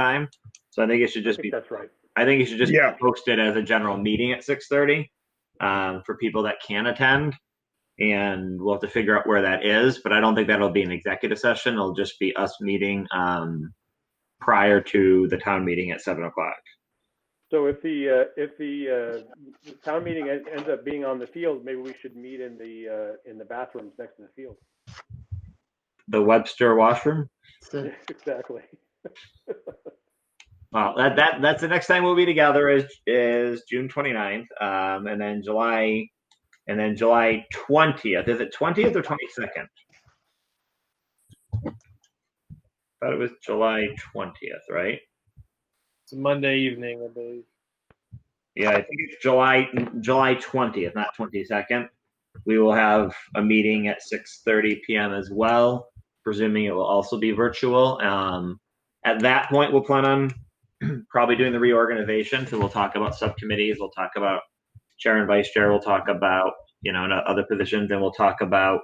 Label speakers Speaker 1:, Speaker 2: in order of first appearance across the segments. Speaker 1: time. So I think it should
Speaker 2: I
Speaker 1: just be,
Speaker 2: think that's right.
Speaker 1: I think it should just
Speaker 3: Yeah.
Speaker 1: be posted as a general meeting at six thirty um, for people that can attend. And we'll have to figure out where that is, but I don't think that'll be an executive session. It'll just be us meeting um, prior to the town meeting at seven o'clock.
Speaker 2: So if the, uh, if the, uh, the town meeting en- ends up being on the field, maybe we should meet in the, uh, in the bathrooms next to the field.
Speaker 1: The Webster washroom.
Speaker 4: So,
Speaker 2: Exactly.
Speaker 1: Well, that, that that's the next time we'll be together is is June 29th, um, and then July, and then July 20th. Is it 20th or 22nd? Thought it was July 20th, right?
Speaker 5: It's a Monday evening, I believe.
Speaker 1: Yeah, I think it's July July 20th, not 22nd. We will have a meeting at 6:30 p.m. as well, presuming it will also be virtual. Um, at that point, we'll plan on probably doing the reorganization. So we'll talk about subcommittees. We'll talk about chair and vice chair. We'll talk about you know and other positions. Then we'll talk about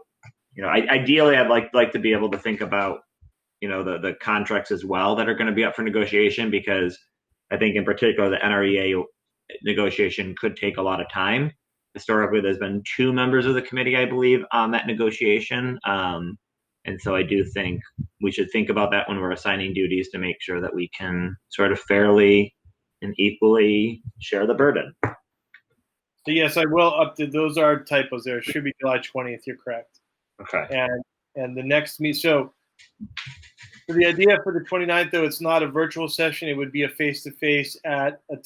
Speaker 1: you know I, ideally I'd like like to be able to think about you know the the contracts as well that are going to be up for negotiation because I think in particular the E NREA negotiation could take a lot of time. Historically, there's been two members of the committee, I believe, on that negotiation. Um, and so I do think we should think about that when we're assigning duties to make sure that we can sort of fairly and equally share the burden.
Speaker 5: So yes, I will update. Those are typos. There It should be July twentieth. You're correct.
Speaker 1: Okay.
Speaker 5: And and the next meet. So, so the idea for the 29th, though, it's not a virtual session. It would be a face to face at a,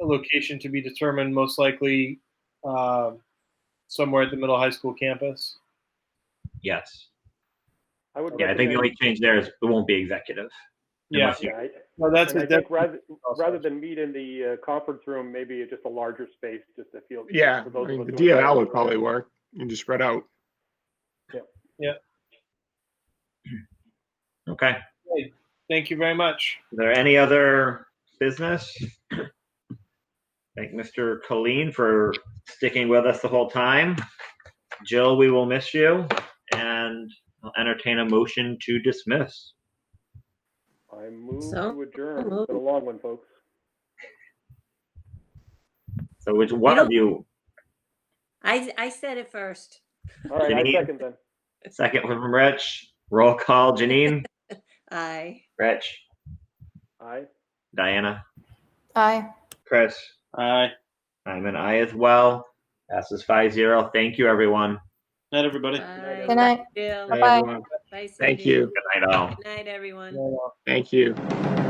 Speaker 5: a location to be determined, most likely um, somewhere at the middle high school campus.
Speaker 1: Yes.
Speaker 2: I would.
Speaker 1: Yeah, I think the only change there is it won't be executive.
Speaker 5: Yeah.
Speaker 1: Unless you-
Speaker 2: recommend- Yeah, I-
Speaker 5: No, that's
Speaker 2: and
Speaker 5: a
Speaker 2: I think
Speaker 5: def-
Speaker 2: rather, rather than meet in the, uh, conference room, maybe just a larger space, just a field.
Speaker 3: Yeah,
Speaker 2: for
Speaker 3: I
Speaker 2: those of
Speaker 3: mean,
Speaker 2: us
Speaker 3: the
Speaker 2: who are-
Speaker 3: DLL would probably work and just spread out.
Speaker 1: Okay.
Speaker 5: Thank you very much.
Speaker 1: Is there any other business? Thank Mr. Colleen for sticking with us the whole time. Jill, we will miss you and I'll entertain a motion to dismiss.
Speaker 2: I move
Speaker 6: So-
Speaker 2: to adjourn. It's been a long one, folks.
Speaker 1: So which one of you,
Speaker 6: I, I said it first.
Speaker 2: All right, I
Speaker 1: Janine?
Speaker 2: second then.
Speaker 1: second one from Rich, roll call, Janine,
Speaker 6: I.
Speaker 1: Rich,
Speaker 2: Aye.
Speaker 1: Diana,
Speaker 7: Aye.
Speaker 1: Chris,
Speaker 5: Aye.
Speaker 1: I'm an I as well. Passes five zero. Thank you, everyone.
Speaker 5: Night, everybody.
Speaker 6: Bye,
Speaker 7: Good night.
Speaker 6: Jill.
Speaker 3: Hey,
Speaker 7: Bye.
Speaker 3: everyone.
Speaker 6: Bye,
Speaker 3: Thank
Speaker 6: Cindy.
Speaker 3: you.
Speaker 1: Good night all.
Speaker 6: Good night, everyone.
Speaker 3: Thank you.
Speaker 1: Good